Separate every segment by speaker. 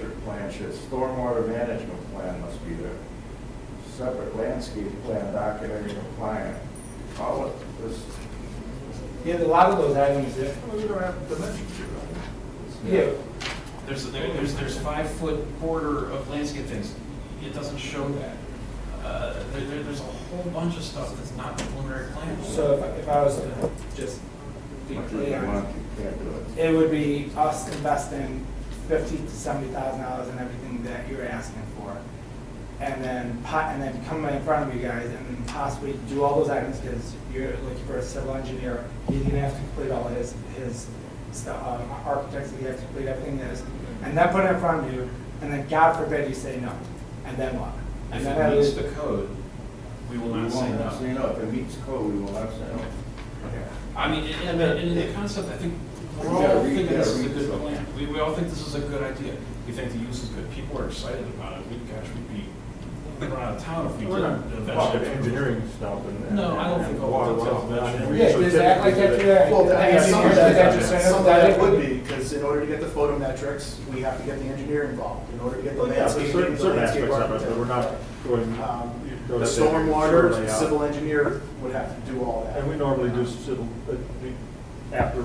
Speaker 1: signature, stormwater management plan must be there. Separate landscape plan documenting the plan. All of this,
Speaker 2: Yeah, a lot of those items that,
Speaker 1: well, you don't have dimensions here, right?
Speaker 2: yeah,
Speaker 3: There's, there- there's, there's five foot border of landscape things. It doesn't show that. Uh, there, there- there's a whole bunch of stuff that's not preliminary plan.
Speaker 2: so if I- if I was to just be
Speaker 1: Much as you
Speaker 2: clear,
Speaker 1: want, you can't do it.
Speaker 2: it would be us investing fifty to seventy thousand dollars in everything that you're asking for. And then, po- and then come in front of you guys and then possibly do all those items, because you're looking for a civil engineer, he's gonna have to complete all his, his stuff, um, architects, he has to complete everything that is, and then put it in front of you, and then God forbid you say no, and then what? And
Speaker 3: If
Speaker 2: then that
Speaker 3: it meets
Speaker 2: is-
Speaker 3: the code, we will
Speaker 1: We
Speaker 3: not
Speaker 1: won't
Speaker 3: say
Speaker 1: have to say
Speaker 3: no.
Speaker 1: no, if it meets code, we will not say no.
Speaker 3: I mean, and, and- and the concept, I think, we're
Speaker 1: You gotta
Speaker 3: all
Speaker 1: read-
Speaker 3: thinking this is a
Speaker 1: you gotta read
Speaker 3: good
Speaker 1: something.
Speaker 3: plan. We, we all think this is a good idea. We think the use is good. People are excited about it. We, gosh, we'd be, we'd run out of town if we
Speaker 4: We're not
Speaker 3: didn't
Speaker 4: involved with
Speaker 3: eventually.
Speaker 4: engineering stuff and.
Speaker 3: No, I don't think all
Speaker 4: Water
Speaker 3: that's
Speaker 4: wells,
Speaker 3: about
Speaker 4: and
Speaker 3: engineering.
Speaker 4: everything.
Speaker 2: Yeah,
Speaker 4: So
Speaker 2: just act like that
Speaker 4: typically,
Speaker 2: today.
Speaker 5: Well, I mean, some of
Speaker 2: Yeah.
Speaker 5: that, some of that would be, because in order to get the photometrics, we have to get the engineer involved. In order to get the
Speaker 4: Well, yeah, there's
Speaker 5: landscaping,
Speaker 4: certain,
Speaker 5: the
Speaker 4: certain
Speaker 5: landscape
Speaker 4: aspects of it, but we're
Speaker 5: architect.
Speaker 4: not going.
Speaker 5: Um,
Speaker 4: go
Speaker 5: The
Speaker 4: to
Speaker 5: stormwater,
Speaker 4: layout.
Speaker 5: civil engineer would have to do all that.
Speaker 4: And we normally do civil, uh, after.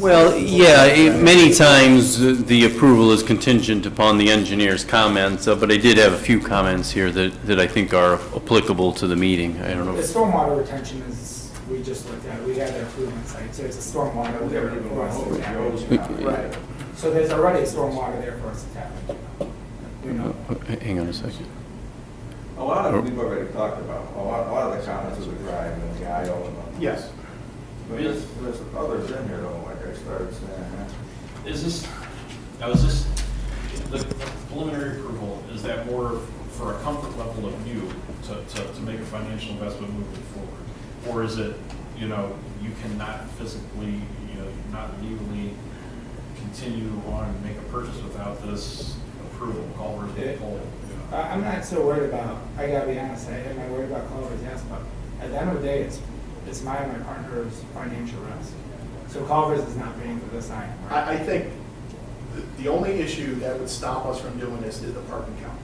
Speaker 6: Well, yeah, it- many times uh, the approval is contingent upon the engineer's comments, uh, but I did have a few comments here that, that I think are applicable to the meeting. I don't know.
Speaker 2: The
Speaker 6: if-
Speaker 2: stormwater retention is, we just looked at, it. we had their improvement site, so it's a stormwater.
Speaker 1: We
Speaker 2: there
Speaker 1: never even
Speaker 2: for
Speaker 1: went
Speaker 2: us to
Speaker 1: over
Speaker 2: tap
Speaker 1: Joe's
Speaker 2: into.
Speaker 1: copy.
Speaker 2: Right, so there's already a stormwater there for us to tap into. You know,
Speaker 6: Uh, Hang on a second.
Speaker 1: A lot of, we've already talked about, a lot, a lot of the comments of the drive and the IO and all.
Speaker 5: Yes.
Speaker 1: But there's, there's others in here though, like I started saying, huh?
Speaker 3: Is this, now is this, the preliminary approval, is that more for a comfort level of you to, to, to make a financial investment moving forward? Or is it, you know, you cannot physically, you know, not legally continue on and make a purchase without this approval, Culver's being pulled? you
Speaker 2: I,
Speaker 3: know?
Speaker 2: I'm not so worried about, I gotta be honest, I am I worried about Culvers, yes, but at the end of the day, it's, it's my and my partner's financial risk. So Culvers is not paying for this item, right?
Speaker 5: I, I think the- the only issue that would stop us from doing this is the parking count.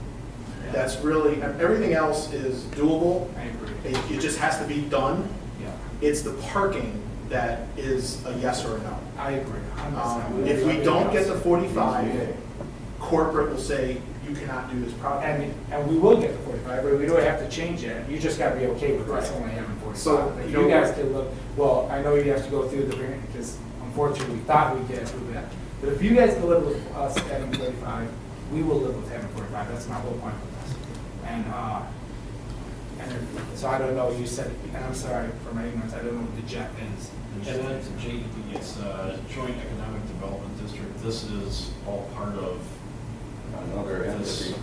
Speaker 5: That's really, everything else is doable.
Speaker 2: I agree,
Speaker 5: It, it just has to be done.
Speaker 2: yeah,
Speaker 5: It's the parking that is a yes or a no.
Speaker 2: I agree, a hundred percent.
Speaker 5: Um, If we don't get the
Speaker 1: Yeah.
Speaker 5: 45, corporate will say, you cannot do this project.
Speaker 2: And, and we will get the forty-five, but we don't have to change it, you just gotta be okay with us
Speaker 5: Right.
Speaker 2: only having forty-five.
Speaker 5: So,
Speaker 2: But
Speaker 5: you
Speaker 2: you
Speaker 5: know-
Speaker 2: guys could look, well, I know you have to go through the, variant because unfortunately, we thought we'd get through that. But if you guys can live with us having forty-five, we will live with having forty-five, that's my whole point with this. And, uh, and, if- so I don't know, you said, and I'm sorry for my ignorance, I don't know what the jet is.
Speaker 3: And then to JED, it's uh Joint Economic Development District. This is all part of
Speaker 1: Another
Speaker 3: this.
Speaker 1: entity.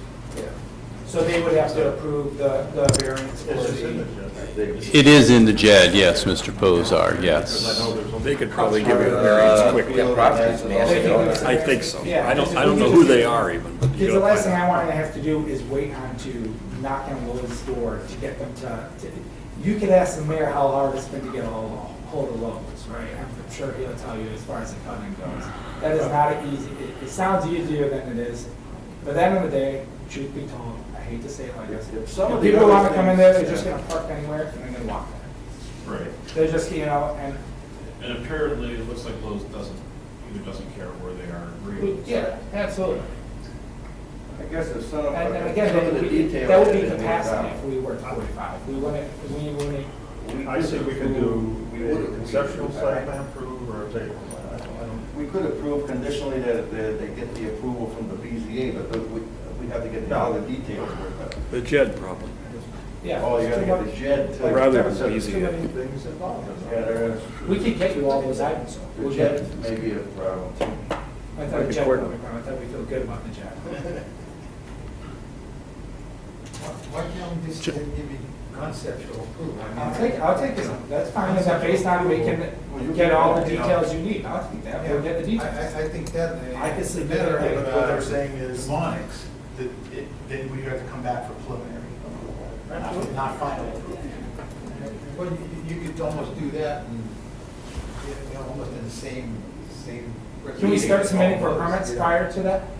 Speaker 2: So they would have to approve the, the variance for the.
Speaker 6: It is in the JED, yes, Mr. Posar, yes.
Speaker 7: They could probably give you a variance
Speaker 4: Uh,
Speaker 7: quickly. I think so.
Speaker 2: Yeah.
Speaker 7: I don't, I don't know who they are even. but you
Speaker 2: Because the
Speaker 7: gotta
Speaker 2: last thing
Speaker 7: find
Speaker 2: I
Speaker 7: out.
Speaker 2: want to have to do is wait on to knock on Will's door to get them to, to- you could ask the mayor how hard it's been to get a hold hold of locals, right? I'm sure he'll tell you as far as the cutting goes. That is not an easy, it, it sounds easier than it is, but at the end of the day, truth be told, I hate to say it like this. If
Speaker 1: Some of the
Speaker 2: people
Speaker 1: other
Speaker 2: want to come in there, they're
Speaker 1: things-
Speaker 2: just gonna park anywhere and then they walk there.
Speaker 3: Right.
Speaker 2: They're just, you know, and
Speaker 3: And apparently, it looks like Lowe's doesn't, either doesn't care where they are, agreeing with
Speaker 2: Yeah, absolutely.
Speaker 1: I guess it's some of.
Speaker 2: And and again,
Speaker 1: some of
Speaker 2: that
Speaker 1: the
Speaker 2: would be,
Speaker 1: details
Speaker 2: that would be
Speaker 1: that they
Speaker 2: capacity
Speaker 1: found.
Speaker 2: if we were forty-five. We wouldn't, we wouldn't,
Speaker 7: I think we can
Speaker 1: We
Speaker 7: do
Speaker 1: would-
Speaker 7: a conceptual site plan approval or a table plan. I don't- I don't-
Speaker 1: We could approve conditionally that, that they get the approval from the BZA, but the- we, we have to get all the details worked out.
Speaker 8: The JED problem.
Speaker 2: yeah.
Speaker 1: Oh, you
Speaker 2: it's
Speaker 1: gotta
Speaker 2: too
Speaker 1: get the
Speaker 2: much.
Speaker 1: JED to.
Speaker 8: Rather than
Speaker 1: Yeah,
Speaker 8: BZA.
Speaker 7: Things involved. in that.
Speaker 1: there is.
Speaker 2: We could get you all those items.
Speaker 1: The
Speaker 2: We'll get-
Speaker 1: JED may be a problem too.
Speaker 2: I thought Jack, I thought we feel good about the Jack.
Speaker 4: Why can't we just give me conceptual approval?
Speaker 2: I'll take, I'll take this, that's fine, is that based on we can get all the details you need, I'll take that, we'll get the
Speaker 4: I,
Speaker 2: details.
Speaker 4: I, I think that.
Speaker 2: I could see
Speaker 4: better
Speaker 2: that.
Speaker 4: than,
Speaker 5: What
Speaker 4: uh,
Speaker 5: they're saying is-
Speaker 4: Demonics.
Speaker 5: That it- Then we have to come back for preliminary, approval, not- not final approval.
Speaker 4: Well, you, you could almost do that and, you know, almost in the same, same.
Speaker 2: Can we start submitting for permits
Speaker 4: Yeah.
Speaker 2: prior to that?